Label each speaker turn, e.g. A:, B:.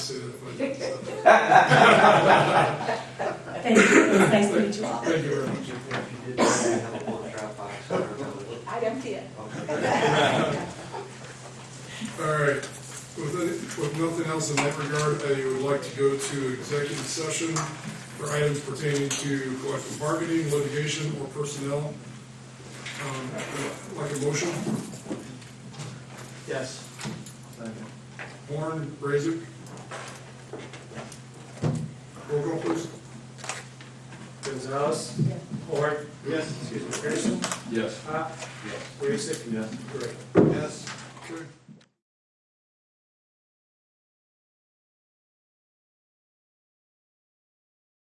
A: say that five times.
B: Thank you, it was nice to meet you all.
A: Thank you very much.
C: If you did, I have a little Dropbox on our
D: I'd empty it.
C: phone.
A: All right, with, with nothing else in that regard, I would like to go to executive session for items pertaining to collective bargaining, litigation, or personnel. Um, Like a motion,
C: Yes.
A: Warren, Raisik. Roll call, please.
E: Gonzalez?
D: Yeah.
E: Horn?
C: Yes.
E: Excuse me, Pearson?
F: Yes.
E: Pop?
F: Yes.
E: Raisik?
F: Yes.
E: Gray?
A: Yes. Okay.